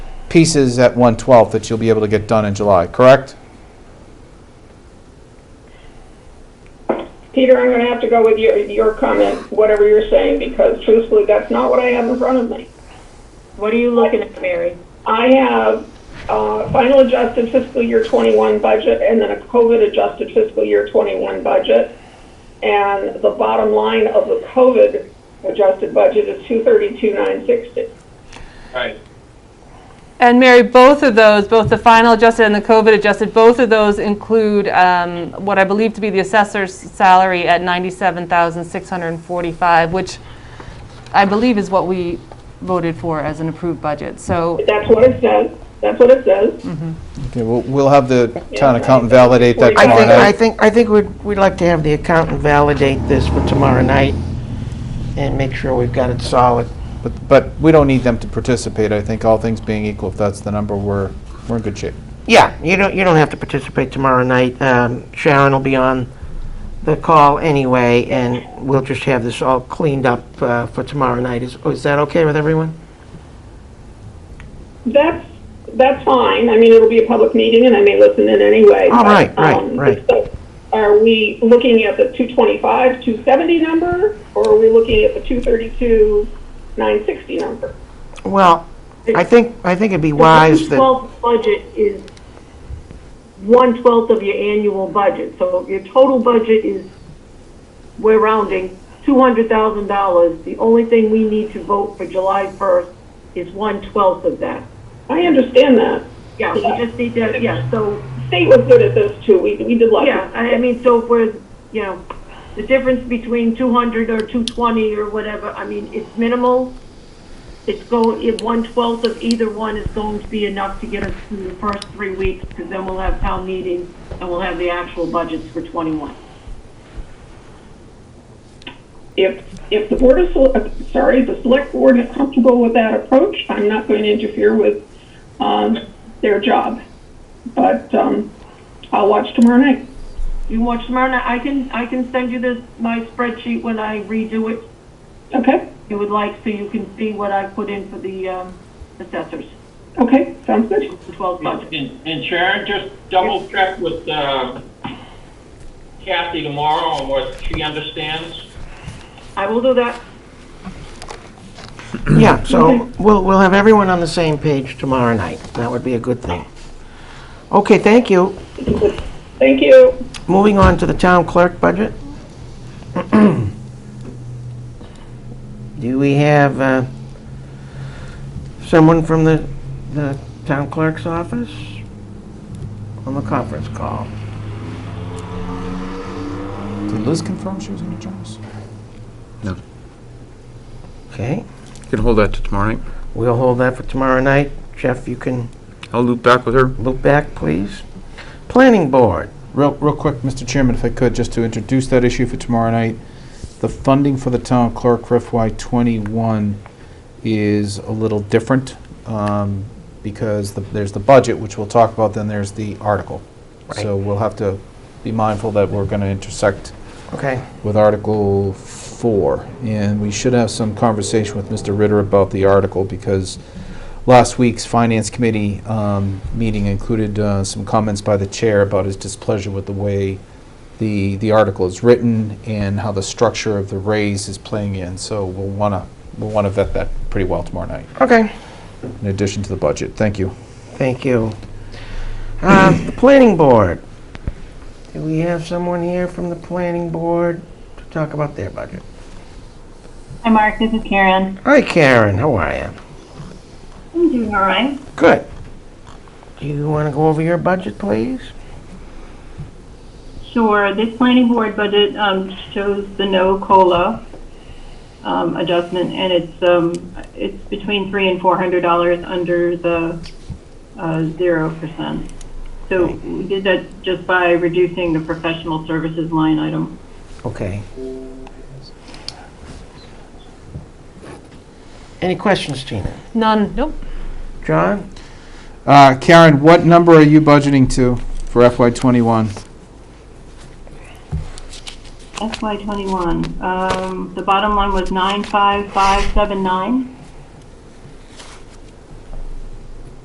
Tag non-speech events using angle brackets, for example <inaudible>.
pieces at 1/12 that you'll be able to get done in July, correct? Peter, I'm gonna have to go with your, your comment, whatever you're saying, because truthfully, that's not what I have in front of me. What are you looking at, Mary? I have, uh, final adjusted fiscal year twenty-one budget and then a COVID adjusted fiscal year twenty-one budget. And the bottom line of the COVID adjusted budget is two thirty-two, nine sixty. Right. And Mary, both of those, both the final adjusted and the COVID adjusted, both of those include um, what I believe to be the assessor's salary at 97,645, which I believe is what we voted for as an approved budget. So, That's what it says, that's what it says. Okay, we'll, we'll have the town Yeah. accountant validate that I I tomorrow think, I night. think, I think we'd, we'd like to have the accountant validate this for tomorrow night and make sure we've got it solid. But, but we don't need them to participate, I think all things being equal, if that's the number, we're, we're in good shape. Yeah, you don't, you don't have to participate tomorrow night. Um, Sharon will be on the call anyway, and we'll just have this all cleaned up uh, for tomorrow night. Is, is that okay with everyone? That's, that's fine, I mean, it'll be a public meeting and I may listen in anyway. Oh, but, right, right, um, right. so Are we looking at the two twenty-five, two seventy number, or are we looking at the two thirty-two, nine sixty number? Well, I think, I think it'd be wise The that, 1/12 budget is one-twelfth of your annual budget, so your total budget is, we're rounding, $200,000. The only thing we need to vote for July 1st is one-twelfth of that. I understand that. Yeah, we just need to, yeah, so State was good at this too, we, we did like. Yeah, I I mean, so if we're, you know, the difference between 200 or 220 or whatever, I mean, it's minimal. It's going, if one-twelfth of either one is going to be enough to get us through the first three weeks, because then we'll have town meeting and we'll have the actual budgets for 21. If, if the board of, Sele- uh, sorry, the select board is comfortable with that approach, I'm not going to interfere with, um, their job. But, um, I'll watch tomorrow night. You can watch tomorrow night, I can, I can send you this, my spreadsheet when I redo it, Okay, if you would like, so you can see what I put in for the um, assessors, okay, sounds good. the 12 budget. And and Sharon, just double check with uh, Kathy tomorrow on what she understands. I will do that. yeah, so we'll, we'll have everyone on the same page tomorrow night. That would be a good thing. Okay, thank you. Thank you. Moving on to the town clerk budget. <clears throat> Do we have uh, someone from the, the town clerk's office on the conference call? Did Liz confirm she was gonna join us? No. Okay, You can hold that to tomorrow night. we'll hold that for tomorrow night. Jeff, you can I'll loop back with her. look back, please. Planning board, Real, real quick, Mr. Chairman, if I could, just to introduce that issue for tomorrow night. The funding for the town clerk for FY '21 is a little different um, because the- there's the budget, which we'll talk about, then there's the article. So we'll have to be mindful that we're going to intersect okay. with Article 4. And we should have some conversation with Mr. Ritter about the article because last week's Finance Committee um, meeting included uh, some comments by the chair about his displeasure with the way the, the article is written and how the structure of the raise is playing in. So we'll want to, we'll want to vet that pretty well tomorrow night, Okay, in addition to the budget. Thank you. thank you. Uh, The planning board, do we have someone here from the planning board to talk about their budget? Hi, Mark. This is Karen. Hi, Karen. How are you? I'm doing all right. Good. Do you want to go over your budget, please? Sure. This planning board budget um, shows the no cola um, adjustment, and it's um, it's between three and four hundred dollars under the uh, zero percent. So we did that just by reducing the professional services line item. Okay. Any questions, Tina? none, nope. John? Uh, Karen, what number are you budgeting to for FY '21? FY twenty-one. Um, the bottom line was nine five five seven nine.